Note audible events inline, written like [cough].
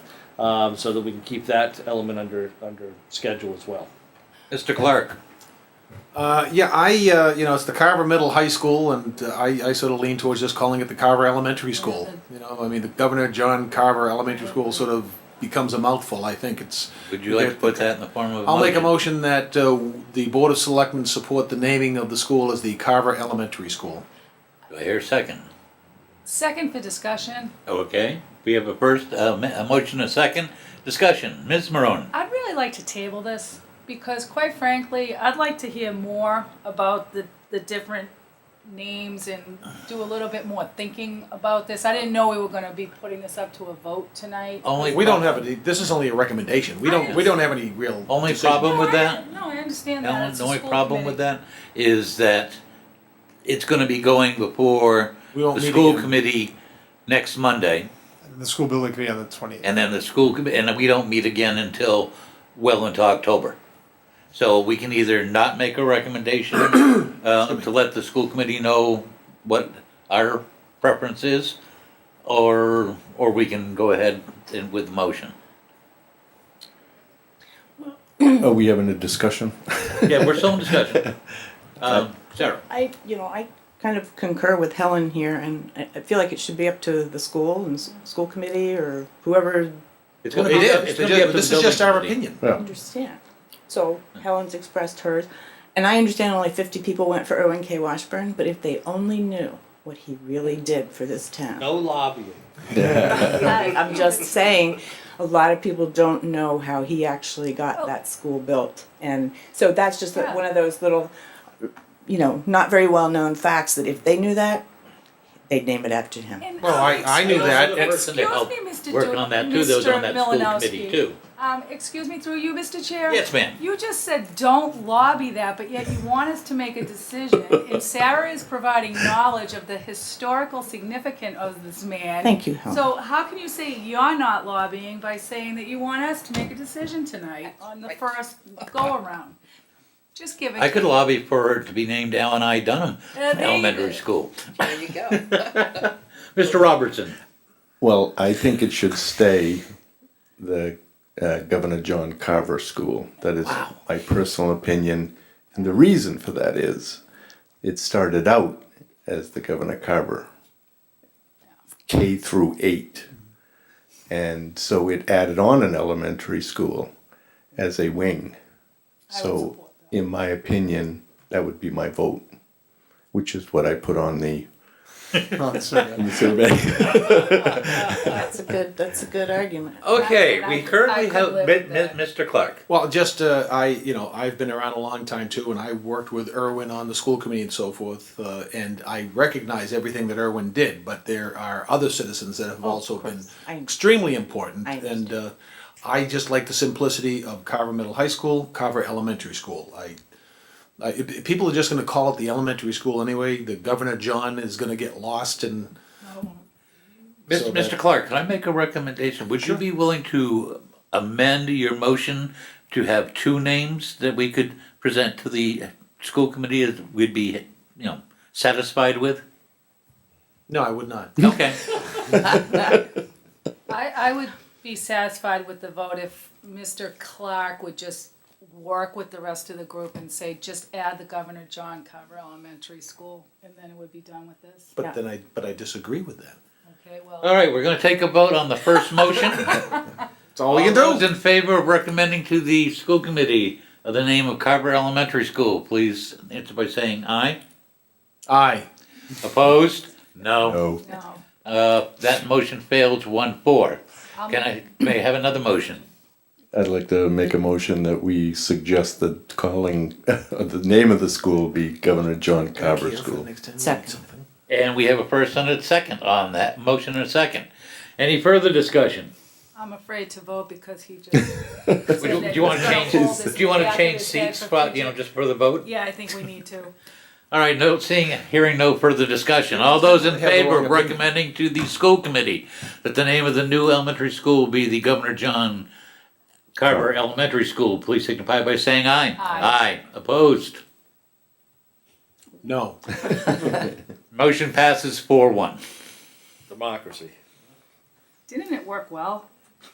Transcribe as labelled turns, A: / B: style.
A: um, so that we can keep that element under, under schedule as well.
B: Mr. Clark,
C: Uh, yeah, I, uh, you know, it's the Carver Middle High School, and uh, I, I sort of lean towards just calling it the Carver Elementary School. You know, I mean, the Governor John Carver Elementary School sort of becomes a mouthful. I think it's.
B: would you like to put that in the form of a
C: I'll make a
B: motion?
C: motion that uh, the Board of Selectmen support the naming of the school as the Carver Elementary School.
B: Do I hear a second?
D: Second for discussion.
B: Okay, we have a first, uh, ma- a motion, a second, discussion, Ms. Marone.
D: I'd really like to table this because quite frankly, I'd like to hear more about the, the different names and do a little bit more thinking about this. I didn't know we were gonna be putting this up to a vote tonight.
B: Only.
C: We don't have any. This is only a recommendation. We don't. We don't have any real.
B: Only
C: decision.
B: problem with
D: No, I-
B: that?
D: No, I understand that.
B: Alan,
D: It's
B: the
D: a
B: only
D: school
B: problem with
D: committee.
B: that is that it's gonna be going before
C: We won't
B: the
C: meet
B: school
C: again.
B: committee next Monday,
E: The school building committee on the twentieth.
B: and then the school committee, and we don't meet again until well into October. So we can either not make a recommendation, uh, to let the school committee know what our preference is, or, or we can go ahead and with the motion.
F: Are we having a discussion?
B: Yeah, we're still in [laughs] discussion. Um, Sarah,
G: I, you know, I kind of concur with Helen here, and I, I feel like it should be up to the school and s- school committee or whoever
B: it's
C: Well,
B: gonna be,
C: it
B: up-
C: is.
B: it's
C: It
B: gonna be up
C: is.
B: to the
C: This is just our
B: building committee.
C: opinion.
F: Yeah.
G: understand. So Helen's expressed hers, and I understand only fifty people went for Owen K. Washburn, but if they only knew what he really did for this town.
A: No lobbying.
G: [laughs] I- I'm just saying, a lot of people don't know how he actually got that school built. And so that's just
D: Yeah.
G: one of those little, you know, not very well known facts that if they knew that, they'd name it after him.
D: And-
C: Well, I- I knew
D: Excuse
C: that.
D: me,
B: The person that
D: excuse
B: helped
D: me, Mr.
B: Working
D: Du-
B: on that too, that was on
D: Mr.
B: that school committee
D: Malinowski.
B: too.
D: Um, excuse me, through you, Mr. Chair?
B: Yes, ma'am.
D: You just said, don't lobby that, but yet you want us to make a decision. And Sarah is providing knowledge of the historical significance of this man.
G: Thank you, Helen.
D: So how can you say you're not lobbying by saying that you want us to make a decision tonight on the first go-around? Just give it.
B: I could lobby for her to be named Alan I. Dunham
D: Uh, there you
B: Elementary
D: go.
B: School.
H: There you go.
B: Mr. Robertson,
F: [laughs] Well, I think it should stay the uh, Governor John Carver School. That is my personal opinion. And the reason for that is it started out as the Governor Carver, K through 8. And so it added on an elementary school as a wing.
D: I would
F: So,
D: support
F: in my opinion, that would be my vote, which is what I put on the,
E: Oh, uh,
F: on the survey. [laughs]
G: That's a good, that's a good argument.
B: okay,
D: I-
B: we
D: I
B: currently
D: could
B: have
D: live
B: Mi-
D: with
B: Mi-
D: that.
B: Mr. Clark.
C: Well, just uh, I, you know, I've been around a long time too, and I worked with Irwin on the school committee and so forth, uh, and I recognize everything that Irwin did. But there are other citizens that have
G: Oh, of
C: also been
G: course. I understand.
C: extremely important,
G: I
C: and uh, I just like the simplicity of Carver Middle High School, Carver Elementary School. I, I if- if people are just going to call it the elementary school anyway. The Governor John is going to get lost and.
B: Mis-
C: So
B: Mr.
C: that-
B: Clark, can I make a recommendation? Would you be willing to amend your motion to have two names that we could present to the school committee that we'd be, you know, satisfied
C: [laughs]
B: with?
C: No, I would not.
B: Okay,
D: I, I would be satisfied with the vote if Mr. Clark would just work with the rest of the group and say, just add the Governor John Carver Elementary School, and then it would be done with this.
C: But
G: Yeah.
C: then I, but I disagree with that.
D: Okay, well,
B: all right, we're gonna take a vote on the first motion.
C: That's [laughs]
F: Oh,
C: all we can
B: All those
C: do.
B: in favor of recommending to the school committee of the name of Carver Elementary School, please answer by saying aye.
C: Aye.
B: Opposed? No.
F: No.
D: no.
B: Uh, that motion fails one four.
D: I'll
B: Can I, may I have another motion?
F: I'd like to make a motion that we suggest that calling, [laughs] the name of the school be Governor John
C: Care for
F: Carver
C: the
F: School.
C: next time we make
G: Second.
C: something.
B: And we have a first and a second on that, motion and a second. Any further
C: [laughs]
B: discussion?
D: I'm afraid to vote because he just.
B: Would you- Do you wanna change, do you wanna change seats, spot, you know, just for the vote?
D: Yeah, I think we need to.
B: All right, no, seeing, hearing no further discussion. All those in
C: Have the wrong
B: favor of
C: opinion.
B: recommending to the school committee that the name of the new elementary school be the Governor John Carver Elementary School, please signify by saying aye.
D: Aye.
B: Opposed?
C: No.
B: Motion passes four one.
A: Democracy.
D: Didn't it work well?